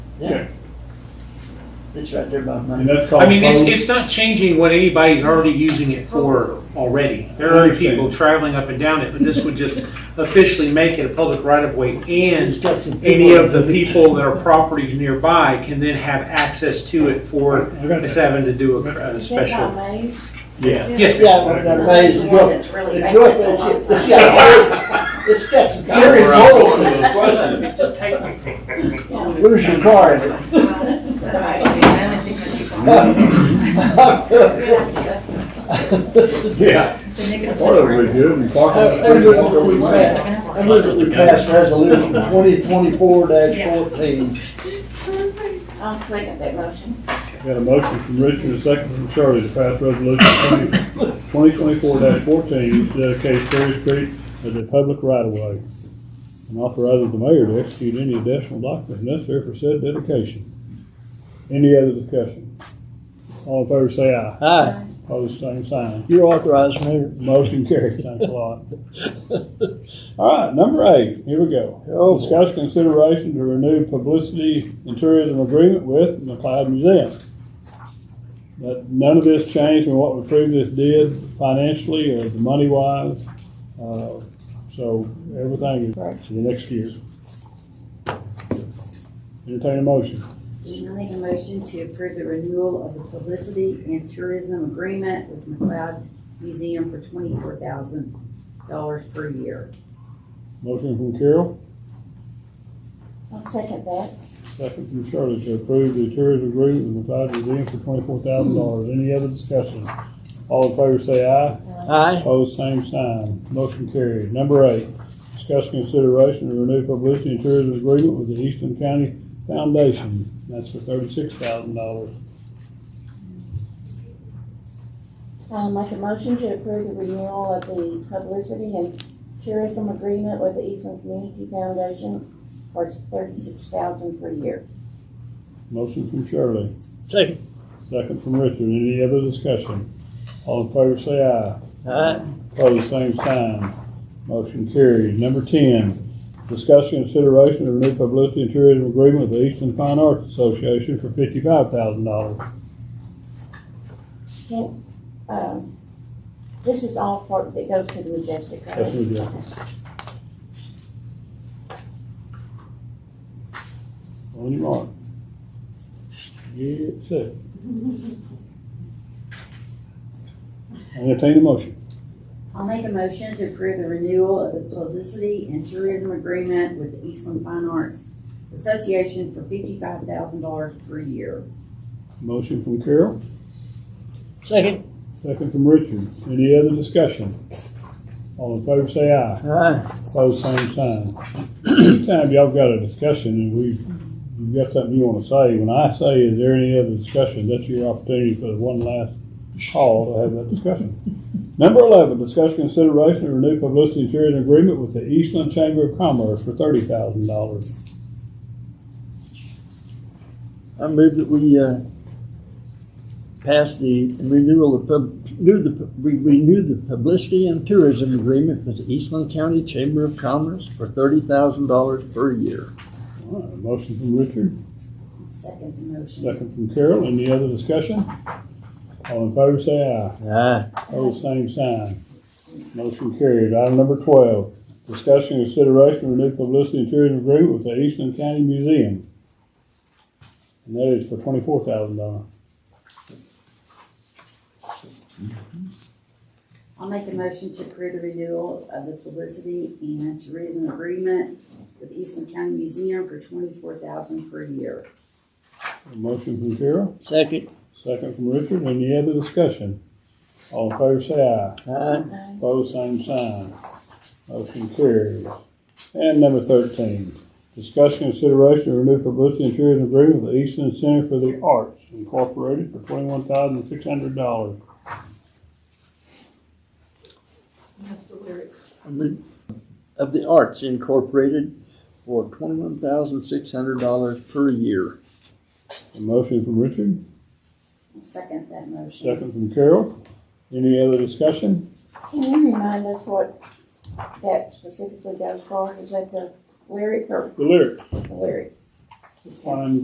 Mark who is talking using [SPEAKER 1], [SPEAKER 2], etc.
[SPEAKER 1] Yeah,
[SPEAKER 2] It's right there by
[SPEAKER 1] and
[SPEAKER 2] mine.
[SPEAKER 1] that's called.
[SPEAKER 3] I mean, it's,
[SPEAKER 1] road-
[SPEAKER 3] it's not changing what anybody's already using it for already. There are other people traveling up and down it, but this would just officially make it a public right of way.
[SPEAKER 2] It's
[SPEAKER 3] And
[SPEAKER 2] got some
[SPEAKER 3] any
[SPEAKER 2] people-
[SPEAKER 3] of the people that are properties nearby can then have access to it for
[SPEAKER 1] I got
[SPEAKER 3] us
[SPEAKER 1] that.
[SPEAKER 3] having to do a, a
[SPEAKER 4] Is that
[SPEAKER 3] special.
[SPEAKER 4] by maze?
[SPEAKER 1] Yes.
[SPEAKER 3] Yes,
[SPEAKER 2] Yeah, but that
[SPEAKER 4] That's
[SPEAKER 2] maze,
[SPEAKER 4] the
[SPEAKER 2] you
[SPEAKER 4] one
[SPEAKER 2] go,
[SPEAKER 4] that's really
[SPEAKER 2] you
[SPEAKER 4] vacant
[SPEAKER 2] go up,
[SPEAKER 4] for a long
[SPEAKER 2] it's, it's
[SPEAKER 4] time.
[SPEAKER 2] got, it's got some serious holes in it. Where's your car?
[SPEAKER 1] Yeah, part of it would be good, and park on the street, walk over the land.
[SPEAKER 2] I move that we pass resolution twenty twenty-four fourteen.
[SPEAKER 4] I'll second that motion.
[SPEAKER 1] Got a motion from Richard, a second from Shirley to pass resolution twenty twenty-four fourteen, to dedicate Cherry Street as a public right-of-way, and authorizes the mayor to execute any additional documents necessary for said dedication. Any other discussion? All in favor, say aye.
[SPEAKER 2] Aye,
[SPEAKER 1] Pose same sign.
[SPEAKER 2] you're authorized, Mayor.
[SPEAKER 1] Motion carries. Thanks a lot. All right, number eight, here we go.
[SPEAKER 2] Oh, boy.
[SPEAKER 1] Discuss consideration to renew publicity and tourism agreement with McLeod Museum. That, none of this changed from what we previously did financially or the money wise. Uh, So everything is right for the next year. Entertain a motion.
[SPEAKER 5] I make a motion to approve the renewal of the publicity and tourism agreement with McLeod Museum for twenty-four thousand dollars per year.
[SPEAKER 1] Motion from Carol,
[SPEAKER 4] I'll second that.
[SPEAKER 1] second from Shirley to approve the tourism agreement with McLeod Museum for twenty-four thousand dollars. Any other discussion? All in favor say aye.
[SPEAKER 2] Aye,
[SPEAKER 1] Opposed, same sign. Motion carried. Number eight, discuss consideration to renew publicity and tourism agreement with the Eastern County Foundation. That's for thirty-six thousand dollars.
[SPEAKER 4] I'll make a motion to approve the renewal of the publicity and tourism agreement with the Eastern Community Foundation for thirty-six thousand per year.
[SPEAKER 1] Motion from Shirley,
[SPEAKER 2] second,
[SPEAKER 1] second from Richard. Any other discussion? All in favor, say aye.
[SPEAKER 2] aye,
[SPEAKER 1] Opposed, same sign. Motion carried. Number ten, discuss consideration to renew publicity and tourism agreement with the Eastern Fine Arts Association for fifty-five thousand dollars.
[SPEAKER 4] Um, This is all for, that goes to the Majestic, right?
[SPEAKER 1] That's what we do. On your mark. Get set. Entertain a motion.
[SPEAKER 5] I'll make a motion to approve the renewal of the publicity and tourism agreement with the Eastland Fine Arts Association for fifty-five thousand dollars per year.
[SPEAKER 1] Motion from Carol,
[SPEAKER 2] second,
[SPEAKER 1] second from Richard. Any other discussion? All in favor, say aye.
[SPEAKER 2] aye,
[SPEAKER 1] Opposed, same sign. Anytime y'all got a discussion and we, you've got something you wanna say, when I say, is there any other discussion, that's your opportunity for the one last call to have that discussion. Number eleven, discuss consideration of renewed publicity and tourism agreement with the Eastland Chamber of Commerce for thirty thousand dollars.
[SPEAKER 2] I move that we, uh, pass the renewal of pub, do the, we renew the publicity and tourism agreement with the Eastland County Chamber of Commerce for thirty thousand dollars per year.
[SPEAKER 1] Motion from Richard,
[SPEAKER 5] Second the motion.
[SPEAKER 1] second from Carol, any other discussion? All in favor, say aye.
[SPEAKER 2] Aye,
[SPEAKER 1] Oh, same sign. Motion carried. Item number twelve, discussion and consideration of renewed publicity and tourism agreement with the Eastland County Museum. And that is for twenty-four thousand dollars.
[SPEAKER 5] I'll make a motion to approve the renewal of the publicity and tourism agreement with Eastland County Museum for twenty-four thousand per year.
[SPEAKER 1] Motion from Carol,
[SPEAKER 2] second,
[SPEAKER 1] second from Richard. Any other discussion? All in favor, say aye.
[SPEAKER 2] aye,
[SPEAKER 1] Both same sign. Motion carries. And number thirteen, discussion and consideration of renewed publicity and tourism agreement with the Eastland Center for the Arts Incorporated for twenty-one thousand six hundred dollars.
[SPEAKER 6] That's the lyric.
[SPEAKER 2] I move of the Arts Incorporated for twenty-one thousand six hundred dollars per year.
[SPEAKER 1] A motion from Richard,
[SPEAKER 5] I'll Second that motion.
[SPEAKER 1] second from Carol. Any other discussion?
[SPEAKER 4] Can you remind us what that specifically goes for? Is that the lyric or
[SPEAKER 1] The lyric,
[SPEAKER 4] the lyric?
[SPEAKER 1] fine